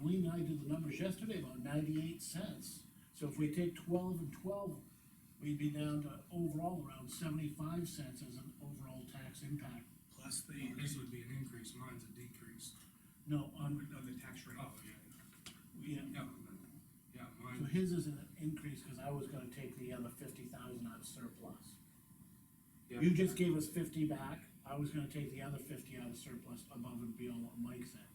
Lean uh, and I did the numbers yesterday, about ninety-eight cents. So if we take twelve and twelve, we'd be down to overall around seventy-five cents as an overall tax impact. Plus the, this would be an increase, mine's a decrease. No, on, Of the tax rate. Oh, yeah, yeah, yeah, yeah, so mine, his is an increase, cause I was gonna take the other fifty thousand out of surplus. yeah. You just gave us fifty back, I was gonna take the other fifty out of surplus above and beyond what Mike said.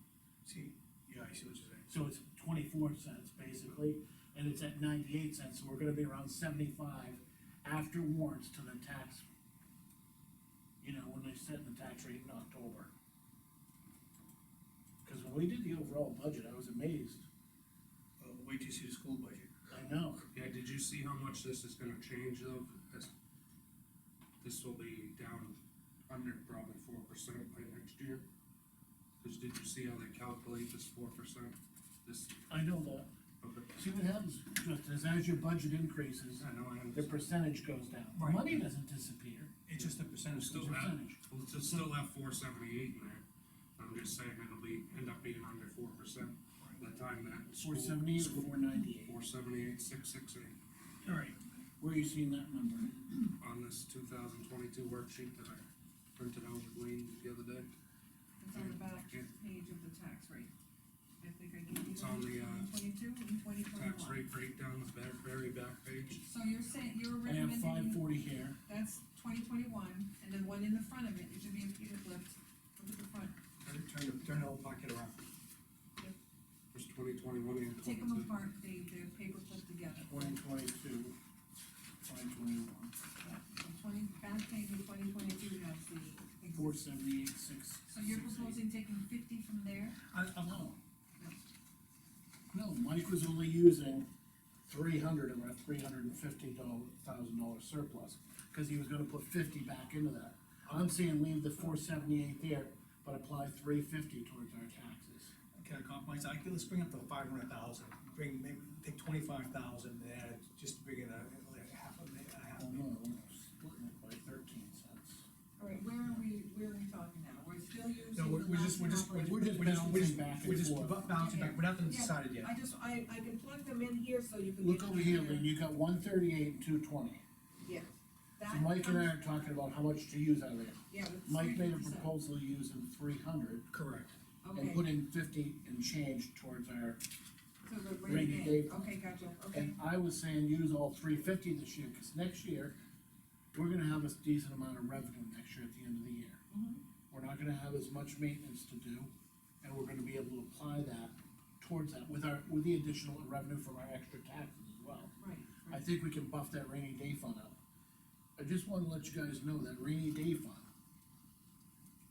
See, yeah, I see what you're saying. So it's twenty-four cents basically, and it's at ninety-eight cents, so we're gonna be around seventy-five after warrants to the tax. You know, when they set the tax rate in October. Cause when we did the overall budget, I was amazed, Uh, wait till you see the school budget. I know, Yeah, did you see how much this is gonna change though? This, this will be down under probably four percent by next year. Cause did you see how they calculate this four percent? This, I know that, okay, see what happens, Justin, is as your budget increases, I know, I understand. the percentage goes down, the Right. money doesn't disappear. It's just a percentage. Still It's a have, percentage. well, it's still have four seventy-eight in there, I'm just saying it'll be, end up being under four percent by the time that. Four seventy-eight or four ninety-eight, Four seventy-eight, six six eight, All right, where are you seeing that number? on this two thousand twenty-two worksheet that I printed out with Lean the other day, It's on the back page of the tax rate. I think I gave you. It's on the, uh, Twenty-two and twenty tax twenty-one. rate breakdown, the very, very back page. So you're saying, you're I have five recommending, forty here, that's twenty twenty-one, and then one in the front of it, it should be a Peter Cliff, look at the front, turn, turn, turn the whole pocket around. There's twenty twenty-one and take them twenty-two. apart, they, they're paper clipped together. twenty twenty-two, twenty twenty-one. Yeah, the Twenty, back page of twenty twenty-two has the. exist- Four seventy-eight, six. So you're six, eight. proposing taking fifty from there? I, I'm, No. No, Mike was only using three hundred of our three hundred and fifty dollar, thousand dollar surplus, cause he was gonna put fifty back into that. I'm saying leave the four seventy-eight there, but apply three fifty towards our taxes. can I compromise? I, could- let's bring up to five hundred thousand, bring, maybe, take twenty-five thousand, and add, it, just bring it a, like a half a, mi- a half Oh, a no, million. we're splitting it by thirteen cents. All right, where are we, where are we talking now? We're still using. No, we're, the we're last just, we're just, operating- we're just, we're just, Balancing we're just, back and we're just forth. ba- balancing back, we're not gonna Yeah. decide it yet. I just, I, I can plug them in here so you can. Look get over here, an Lynn, idea. you got one thirty-eight and two twenty. Yeah. So That Mike and I are comes- talking about how much to use out of there. Yeah. but it's Mike made a 3%. proposal using three hundred, Correct. and Okay, put in fifty and change towards our, so the rainy day rainy day, okay, gotcha, okay. and I was saying use all three fifty this year, cause next year, we're gonna have a decent amount of revenue next year at the end of the year. Mhm. We're not gonna have as much maintenance to do, and we're gonna be able to apply that towards that with our, with the additional revenue from our extra taxes as well. Right, I right. think we can buff that rainy day fund up. I just wanna let you guys know that rainy day fund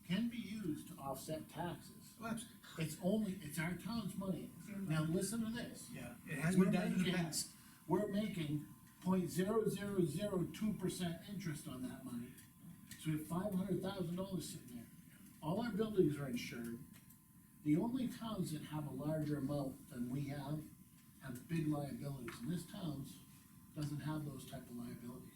can be used to offset taxes. Well, that's- It's only, it's our town's money. Now, listen to this. Yeah, it has been done in the We're making- past. We're making point zero zero zero two percent interest on that money. So we have five hundred thousand dollars sitting there. All our buildings are insured. The only towns that have a larger amount than we have have big liabilities, and this town's doesn't have those type of liabilities.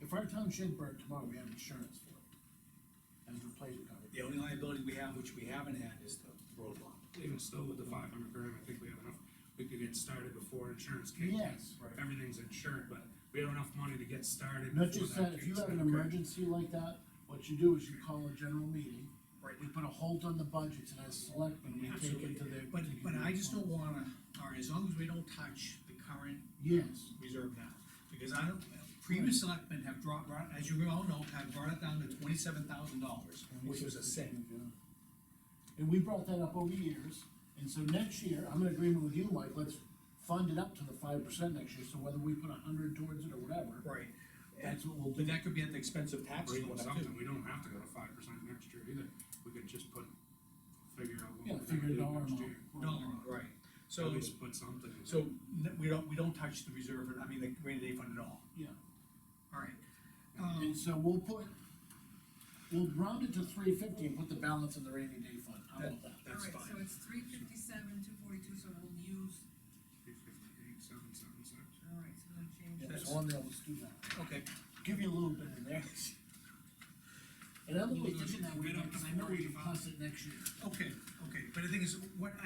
If our town should burn tomorrow, we have insurance for it. As replacement coverage. The only liability we have, which we haven't had, is the road law. Even still with the five hundred grand, I think we have enough, we could get started before insurance kicks in. Yes. Right. Everything's insured, but we have enough money to get started. Not before just that, if kicks you have in, an okay? emergency like that, what you do is you call a general meeting. Right. We put a hold on the budgets and as selectmen, we take Absolutely, it to their. but, to but their I just don't response. wanna, all right, as long as we don't touch the current Yes, reserve now, because I don't, previous selectmen have dropped, brought, as you all know, have brought it down to twenty-seven thousand dollars, which was a sin. and we brought that up over years, and so next year, I'm in agreement with you, Mike, let's fund it up to the five percent next year, so whether we put a hundred towards it or whatever. Right. That's what we'll do. But that could be at the expense of Or taxes. even going up, something, too. we don't have to go to five percent next year either, we could just put, figure out Yeah, what we're figure gonna it do dollar next amount. year. No, right, At so, least put something. in so, n- we don't, we don't touch the reserve, I mean, the rainy day fund at all, Yeah, all right. Um, and so we'll put, we'll round it to three fifty and put the balance in the rainy day fund, how about that? that's All right, so fine, it's three fifty-seven, two forty-two, so we'll use, Three fifty-eight, seven, seven, six. all right, so we'll change. Yeah, That's- so on there, let's do that. okay, give you a little bit in there. And I'm only Well, thinking that way, we don't- because I know we can pass it next year. okay, okay, but the thing is, what